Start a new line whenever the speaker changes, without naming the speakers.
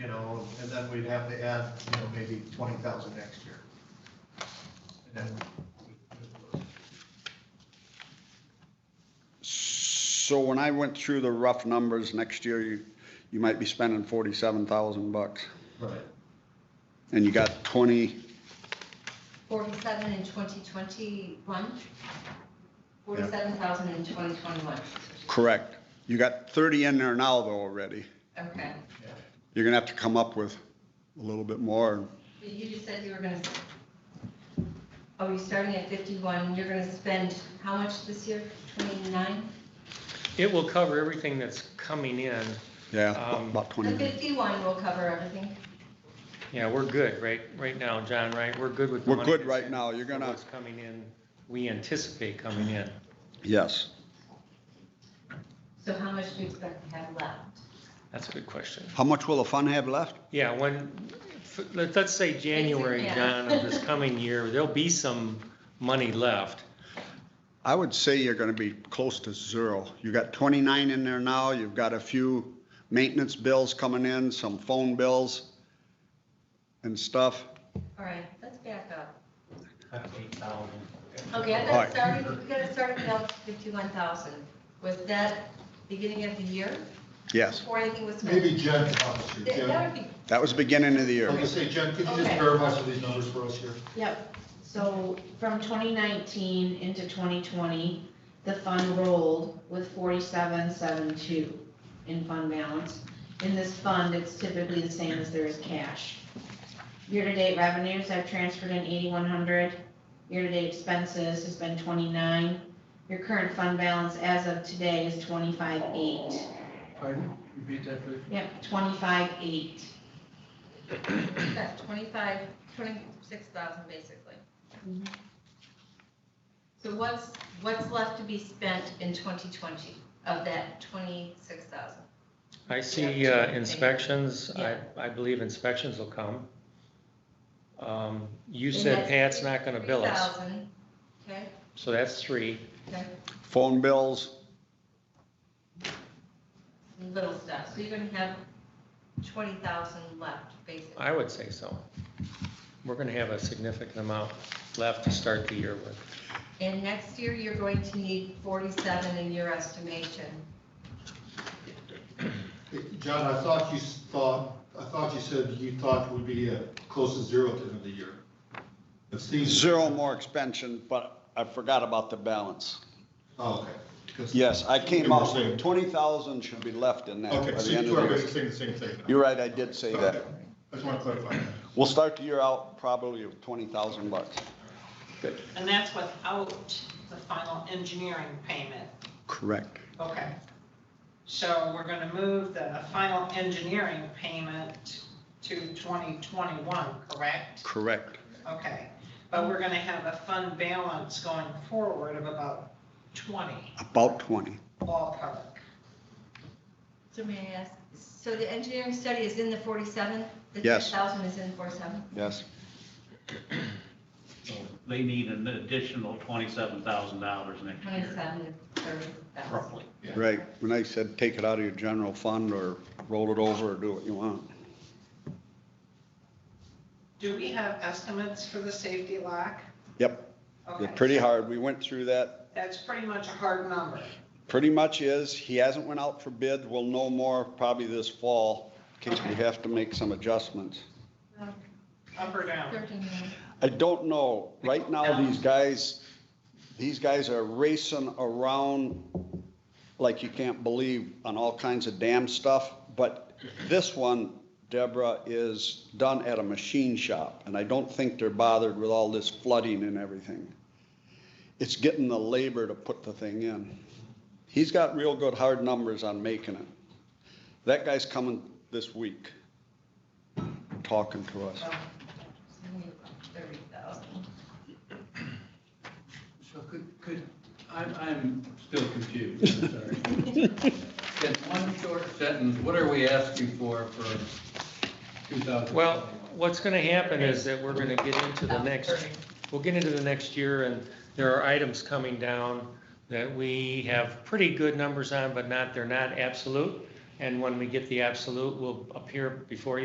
and then we'd have to add, you know, maybe twenty thousand next year. And then we-
So when I went through the rough numbers, next year, you, you might be spending forty-seven thousand bucks.
Right.
And you got twenty,
Forty-seven in twenty twenty-one? Forty-seven thousand in twenty twenty-one,
correct. You got thirty in there now though already.
okay.
You're gonna have to come up with a little bit more.
But You just said you were gonna, oh, you're starting at fifty-one, you're gonna spend how much this year? Twenty-nine?
It will cover everything that's coming in.
Yeah,
Um,
about
The
twenty.
fifty-one will cover everything.
Yeah, we're good, right, right now, John, right? We're good with the
We're
money.
good
that's
right
in,
now. You're gonna-
What's coming in, we anticipate coming in.
Yes.
So how much do you expect to have left?
That's a good question.
How much will the fund have left?
Yeah, when, f- let- let's say January,
yeah.
John, of this coming year, there'll be some money left.
I would say you're gonna be close to zero. You got twenty-nine in there now, you've got a few maintenance bills coming in, some phone bills and stuff.
All right, let's back up.
Eight thousand.
Okay, I
All
got
right.
it started, we got it started out at fifty-one thousand. Was that beginning of the year?
Yes,
Before anything was spent?
Maybe Jen can help us here.
That-
Jen,
That would be,
that was beginning of the
I was gonna
year.
say, Jen, could you just
Okay.
verify some of these numbers for us here?
Yep, so from twenty nineteen into twenty twenty, the fund rolled with forty-seven, seven, two in fund balance. In this fund, it's typically the same as there is cash. Year-to-date revenues, I've transferred in eighty-one hundred. Year-to-date expenses has been twenty-nine. Your current fund balance as of today is twenty-five, eight.
Pardon? Repeat that, please.
Yep, twenty-five, eight.
that's twenty-five, twenty-six thousand basically.
Mhm.
So what's, what's left to be spent in twenty twenty of that twenty-six thousand?
I see
Yeah.
uh, inspections, I,
Yeah.
I believe inspections will come. Um, You
And
said
that's
Pat's not gonna bill us,
53,000, Okay,
so that's three.
okay,
Phone bills,
little stuff, so you're gonna have twenty thousand left basically.
I would say so. We're gonna have a significant amount left to start the year with.
And next year, you're going to need forty-seven in your estimation.
John, I thought you s- thought, I thought you said you thought we'd be uh, close to zero at the end of the year. It seems.
zero more expansion, but I forgot about the balance.
Oh, okay. 'Cause-
Yes, I came up,
Interesting.
twenty thousand should be left in that
Okay,
by
so
the end
you
of
are
the year.
basically saying the same thing. now.
You're right, I did say that.
Okay. I just want to clarify that.
We'll start the year out probably with twenty thousand bucks.
And that's without the final engineering payment,
Correct.
okay. So we're gonna move the final engineering payment to 2021, correct?
Correct.
Okay, but we're gonna have a fund balance going forward of about 20
About twenty.
ballpark.
So may I ask, so the engineering study is in the forty-seven?
Yes.
The ten thousand is in forty-seven?
Yes.
So They need an additional twenty-seven thousand dollars next year,
Twenty-seven to thirty thousand.
roughly.
Right. When I said take it out of your general fund or roll it over or do what you want.
Do we have estimates for the safety lock?
Yep,
Okay,
they're pretty hard. We went through that.
That's pretty much a hard number.
Pretty much is, he hasn't went out for bid. We'll know more probably this fall in case we have to make some adjustments.
Up or down?
Thirteen million.
I don't know. Right now, these guys, these guys are racing around like you can't believe on all kinds of damn stuff. But this one, Deborah, is done at a machine shop, and I don't think they're bothered with all this flooding and everything. It's getting the labor to put the thing in. He's got real good hard numbers on making it. That guy's coming this week, talking to us.
Thirty thousand.
So could, could, I'm, I'm still confused, I'm sorry. In one short sentence, what are we asking for for 2021?
Well, what's gonna happen is that we're gonna get into the next, we'll get into the next year and there are items coming down that we have pretty good numbers on, but not, they're not absolute. And when we get the absolute, will appear before you.